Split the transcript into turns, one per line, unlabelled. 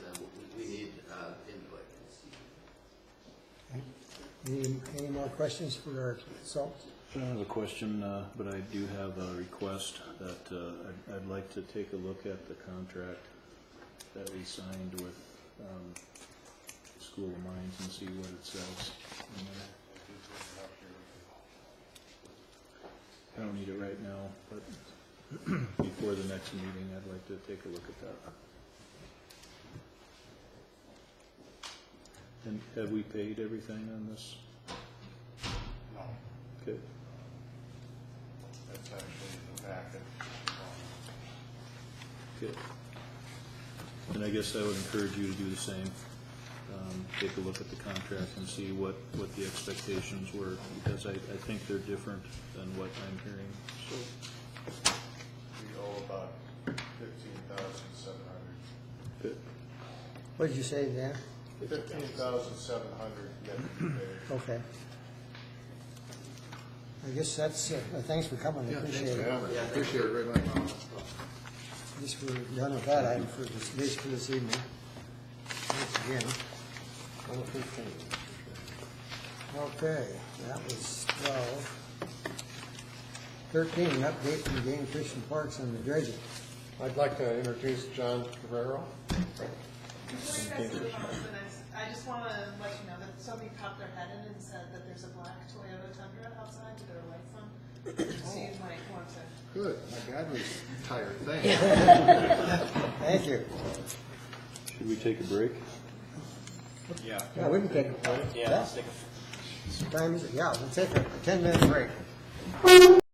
Any, any more questions for our consultant?
I don't have a question, uh, but I do have a request that uh, I'd- I'd like to take a look at the contract that we signed with um, School of Mines and see what it says. in there. I don't need it right now, but before the next meeting, I'd like to take a look at that. And have we paid everything on this?
No,
Okay.
that's actually in the packet.
Good. And I guess I would encourage you to do the same. Um, Take a look at the contract and see what, what the expectations were, because I, I think they're different than what I'm hearing. So
We owe about fifteen thousand seven hundred.
Good.
What did you say, Dan?
Fifteen thousand seven hundred yet to be paid.
Okay. I guess that's, uh, thanks for coming, I appreciate it.
Yeah, appreciate it very much.
I guess we're done with that item for this, this, for this evening. Thanks again. One fifteen. Okay, that was twelve. Thirteen, update from game fish and parks on the dredging.
I'd like to introduce John Guerrero.
What do you guys do about the next, I just wanna let you know that somebody popped their head in and said that there's a black Toyota Tundra outside with their lights on. Just use my form to
Good, my God, we tired thing.
Thank you.
Should we take a break?
Yeah, we can take a break. Yeah. Time is, yeah, we'll take a ten-minute break.